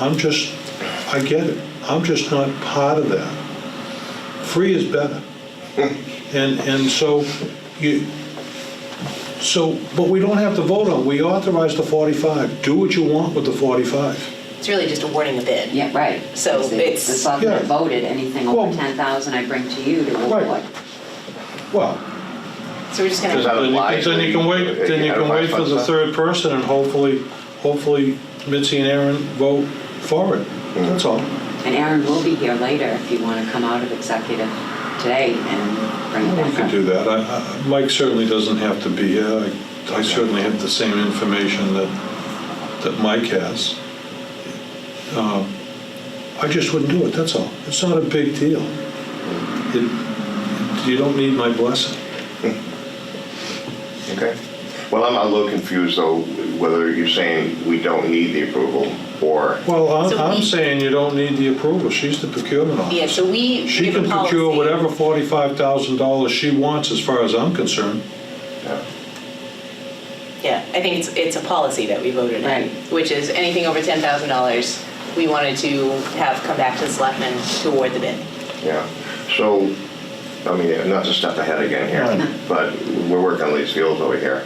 I'm just, I get it, I'm just not part of that. Free is better. And, and so you, so, but we don't have to vote on, we authorized the 45, do what you want with the 45. It's really just awarding a bid. Yeah, right. So Because it's- The selectmen Yeah. voted, anything Well- over 10,000 I bring to you to Right. award. Well, So we're just gonna. Does that then you apply can- then you can to- wait, then you can wait for the third person and hopefully, hopefully Mitzi and Aaron vote for it, that's all. And Aaron will be here later if you want to come out of executive today and bring it We back could up. do that. I- I- Mike certainly doesn't have to be here. I- I certainly have the same information that, that Mike has. Um, I just wouldn't do it, that's all. It's not a big deal. It- You don't need my blessing. Okay. Well, I'm a little confused though, whether you're saying we don't need the approval or, Well, I'm, So I'm we- saying you don't need the approval. She's the procurement Yeah, officer. so we She give a can procure policy. whatever forty-five thousand dollars she wants, as far as I'm concerned. yeah, Yeah, I think it's, it's a policy that we voted in, Right. which is anything over ten thousand dollars, we wanted to have come back to the selectmen to award the bid. yeah. So, I mean, not to step ahead again here, Right. but we're working on these fields over here.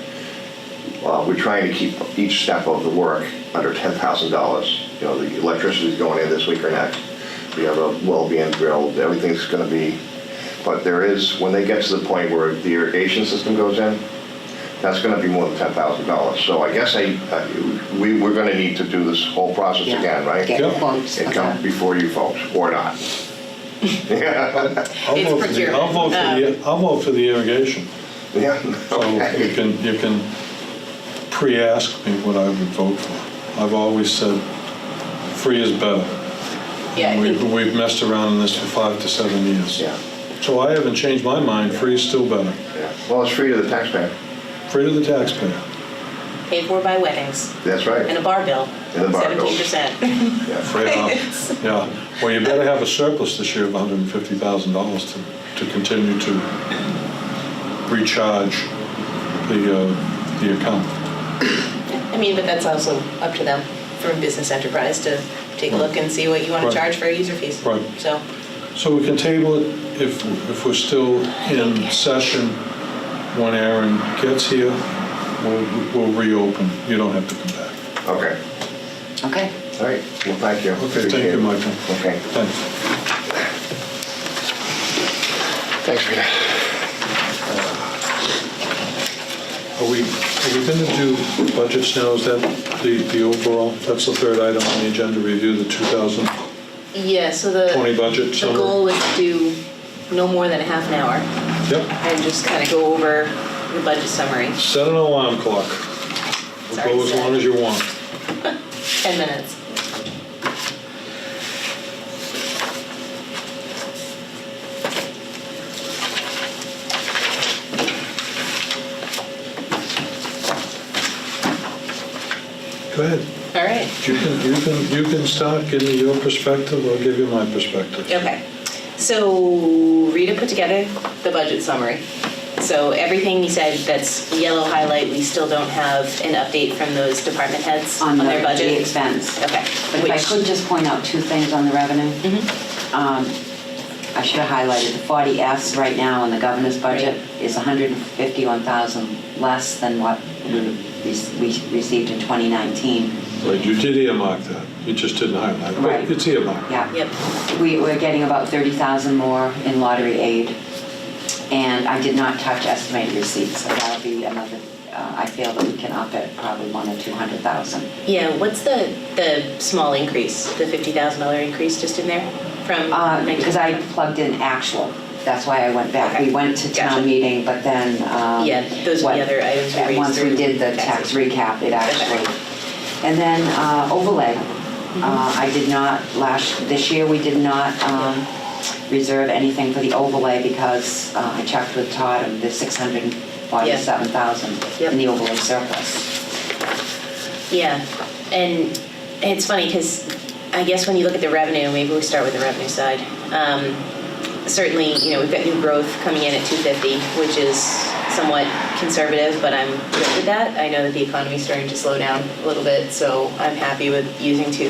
Uh, We're trying to keep each step of the work under ten thousand dollars. You know, the electricity's going in this week or next. We have a well being drilled, everything's gonna be, but there is, when they get to the point where the irrigation system goes in, that's gonna be more than ten thousand dollars. So I guess I, I- we, we're gonna need to do this whole process Yeah. again, right? Get Yep. quotes. It comes okay. before you folks, or not. Yeah, I'll It's vote for the- procurement. I'll vote for the, I'll vote for the irrigation. yeah, So you okay. can, you can pre-ask me what I would vote for. I've always said, free is better. Yeah, I And think, We've, we've messed around in this for five to seven years. Yeah, So I haven't changed my mind, free is still better. yeah. Well, it's free to the taxpayer, Free to the taxpayer. paid for by weddings that's right. and a bar bill, And a bar bill. seventeen percent. Yeah. Free enough. Yeah, well, you better have a surplus this year of hundred and fifty thousand dollars to, to continue to recharge the, uh, the account. I mean, but that's also up to them for a business enterprise to take a look and see what you wanna Right. charge for user fees. Right. So, So we can table it if, if we're still in session when Aaron gets here, we'll, we'll reopen. You don't have to come back. Okay, Okay. all right, well, thank you. Okay, thank Appreciate you, it. Michael. Okay, Thanks. thanks for that. Are we, are we going to do budgets now? Is that the, the overall? That's the third item on the agenda, review the 2020 yeah, so the. budget The summary? goal was to do no more than a half an hour Yep. and just kind of go over the budget summary, Set an alarm clock. We'll Sorry, Go as Seth. long as you want. 10 minutes. Go ahead. All right. You can, you can, you can start, give me your perspective, I'll give you my perspective. Okay. So Rita put together the budget summary. So everything you said that's yellow highlight, we still don't have an update from those department heads on On the their the budget. expense. Okay. But if I Which- Mm-hmm. could just point out two things on the revenue. Um, I should have highlighted the 40S right now in the governor's budget is 151,000 less than what we we received in 2019. Right, you did earmark that, you just didn't highlight, Right. but it's earmarked. Yeah. Yep. We, we're getting about 30,000 more in lottery aid. And I did not touch estimated receipts, so that'll be another, uh, I feel that we can up it probably one or 200,000. Yeah, what's the, the small increase, the $50,000 increase just in there from? Uh, Because I plugged in actual, that's why I went back. We went to Gotcha. town meeting, but then. um, Yeah, those are the what- other items we and raised Once through we did the tax taxation. recap, it actually. And then uh, overlay. Mm-hmm. Uh, I did not, last, this year, we did not um, reserve anything for the overlay because uh, I checked with Todd and the 647,000 Yep. in the overlay surplus. Yeah, and it's funny because I guess when you look at the revenue, maybe we start with the revenue side. Um, certainly, you know, we've got new growth coming in at 250, which is somewhat conservative, but I'm good with that. I know that the economy's starting to slow down a little bit, so I'm happy with using 250.